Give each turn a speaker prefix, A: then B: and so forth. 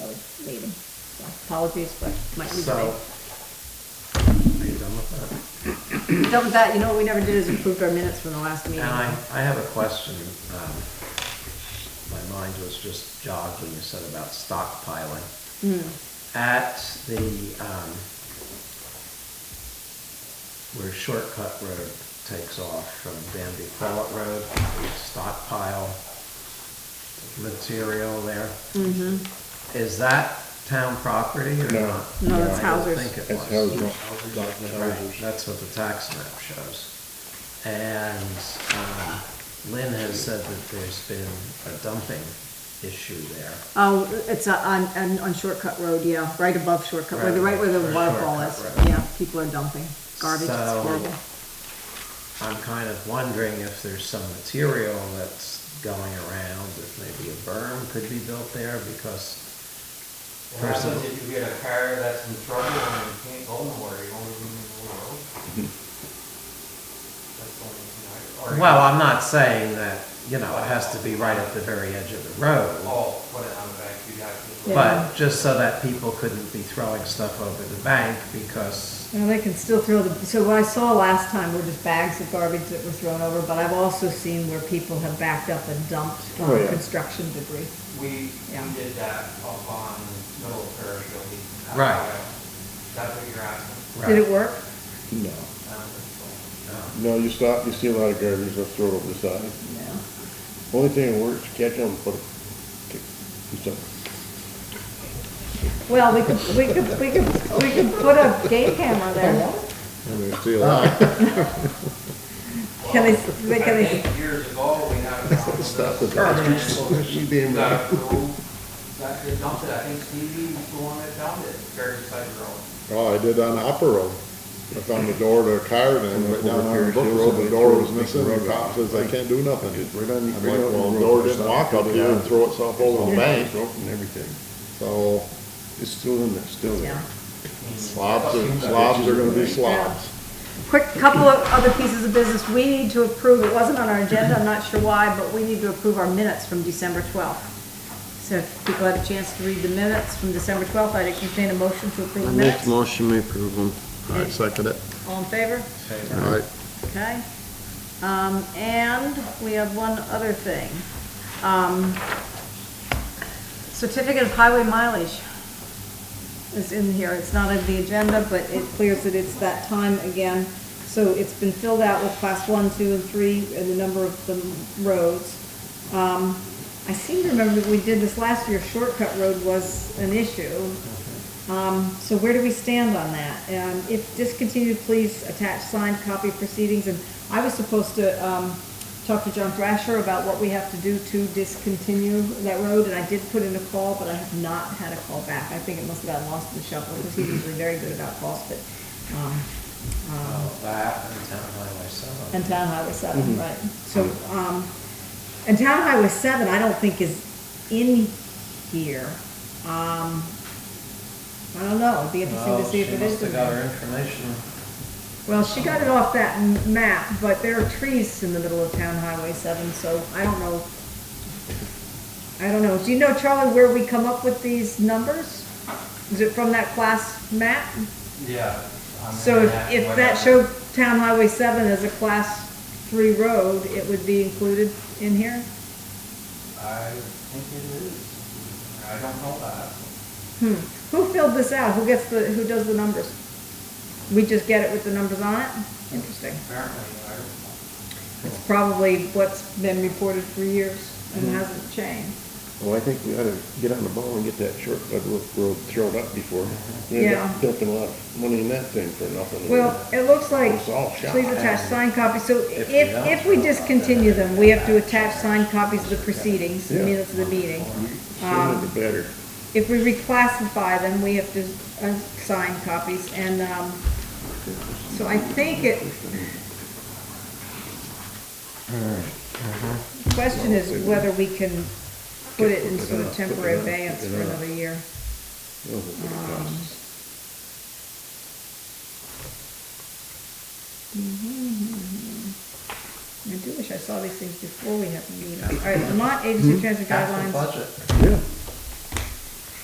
A: meeting. So Apologies, but my.
B: So, are you done with
A: Done with that, you know what we never did is approved our minutes from the last
B: that?
A: meeting.
B: And I, I have a question. um, My mind was just jogged when you said about stockpiling.
A: Hmm,
B: At the, um, where Shortcut Road takes off from Danby Pollitt Road, stockpile material there.
A: mm-hmm.
B: Is that town property or
C: No.
B: not?
A: No, that's
B: I don't
A: Hauser's.
B: think it
C: That's
B: was.
C: Hauser.
B: Hauser's?
C: Doc
B: Right,
C: Hauser's.
B: That's what the tax map shows. And um, Lynn has said that there's been a dumping issue there.
A: Oh, it's uh, on, on, on Shortcut Road, yeah, right above Shortcut, where the, right where the
B: Right,
A: waterfall is.
B: Shortcut Road.
A: Yeah, people are dumping garbage, it's
B: So-
A: horrible.
B: I'm kind of wondering if there's some material that's going around, if maybe a berm could be built there because,
D: What happens
B: Personal.
D: if you get a car that's in trouble and you can't go nowhere, you won't even move the road? That's the only thing I- or you-
B: well, I'm not saying that, you know, it has to be right at the very edge of the road.
D: Oh, put it on the back, you'd have to.
B: But just so that people couldn't be throwing stuff over the bank because
A: Well, they can still throw the, so what I saw last time were just bags of garbage that were thrown over, but I've also seen where people have backed up and dumped um,
C: Oh, yeah.
A: construction debris.
D: We,
A: Yeah.
D: we did that up on Middle Parish, you'll be.
B: Right.
D: That's what you're asking. Um,
B: Right. um,
A: Did it work?
C: No,
D: I don't think
C: no, you stop, you see a lot of garbage, let's throw it over the side.
A: No.
C: Only thing that works, catch them, put, it- kick- do something.
A: Well, we could, we could, we could, we could put a game camera there.
C: I mean, steal it.
D: so.
A: Can they,
D: Well,
A: they- can
D: I
A: they,
D: think years ago, we had a problem with
C: Stop
D: this
C: it.
D: permanent
C: You
D: solution
C: damn
D: that
C: right.
D: approved, that they dumped it, I think Stevie was the one that dumped it, very side road.
C: Oh, I did on Upper Road. I found the door to a car and then went down on
E: Over
C: the book
E: here,
C: road, the
E: here's
C: door
E: somebody
C: was missing,
E: threw
C: the cop says, I can't do nothing.
E: It's
C: I'm
E: right
C: like,
E: on- right on
C: well, the
E: the
C: door
E: road,
C: didn't
E: it's
C: walk
E: not
C: up
E: gonna be
C: here and
E: out.
C: throw itself over the bank,
E: Broken everything.
C: so
E: It's still in there, still there.
A: yeah.
C: slobs are, slobs are gonna be slobs.
A: Quick, couple of other pieces of business. We need to approve, it wasn't on our agenda, I'm not sure why, but we need to approve our minutes from December 12th. So if people had a chance to read the minutes from December 12th, I'd entertain a motion to approve the minutes.
C: motion, we approve them. I second it.
A: All in favor?
C: All right.
A: Okay. Um, and we have one other thing. Um, certificate of highway mileage is in here. It's not on the agenda, but it clears that it's that time again. So it's been filled out with class one, two, and three, and the number of the roads. Um, I seem to remember that we did this last year, shortcut road was an issue. Um, so where do we stand on that? Um, if discontinued, please attach signed copy proceedings, and I was supposed to, um, talk to John Thrasher about what we have to do to discontinue that road, and I did put in a call, but I have not had a call back. I think it must have gotten lost in the shuffle, because he's usually very good about calls, but, um, um,
B: of that and town highway seven.
A: and Town Highway seven, right. Mm-hmm. So, um, and Town Highway seven, I don't think is in here. Um, I don't know, it'd be interesting to
B: Well,
A: see if it
B: She must
A: is in
B: have got her
A: there.
B: information.
A: Well, she got it off that m- map, but there are trees in the middle of Town Highway seven, so I don't know. I don't know. Do you know, Charlie, where we come up with these numbers? Is it from that class map?
D: Yeah. on
A: So if,
D: internet,
A: if
D: whatever.
A: that showed Town Highway seven as a class three road, it would be included in here?
D: I think it is. I don't know that.
A: Hmm, who filled this out? Who gets the, who does the numbers? We just get it with the numbers on it? Interesting.
D: Apparently, I don't
A: It's probably what's been reported for years and hasn't changed.
C: Well, I think we ought to get on the ball and get that shortcut road road thrown up before. We end up
A: Yeah.
C: Dumping a lot of money in that thing for nothing.
A: Well, it looks like,
C: It's all shot.
A: please attach signed copies, so if,
B: If we don't-
A: if we discontinue them, we have to attach signed copies of the proceedings, the
C: Yeah.
A: minutes of the meeting.
C: Sooner
A: um,
C: the better.
A: If we reclassify them, we have to uh, sign copies, and, um, so I think it. Question is whether we can put it in sort of temporary abeyance for another year.
C: Knows what it
A: Um,
C: costs.
A: I do wish I saw these things before we have the meeting. All right, Vermont Agency of Transit
B: Half the
A: Guidelines.
B: budget.
C: Yeah,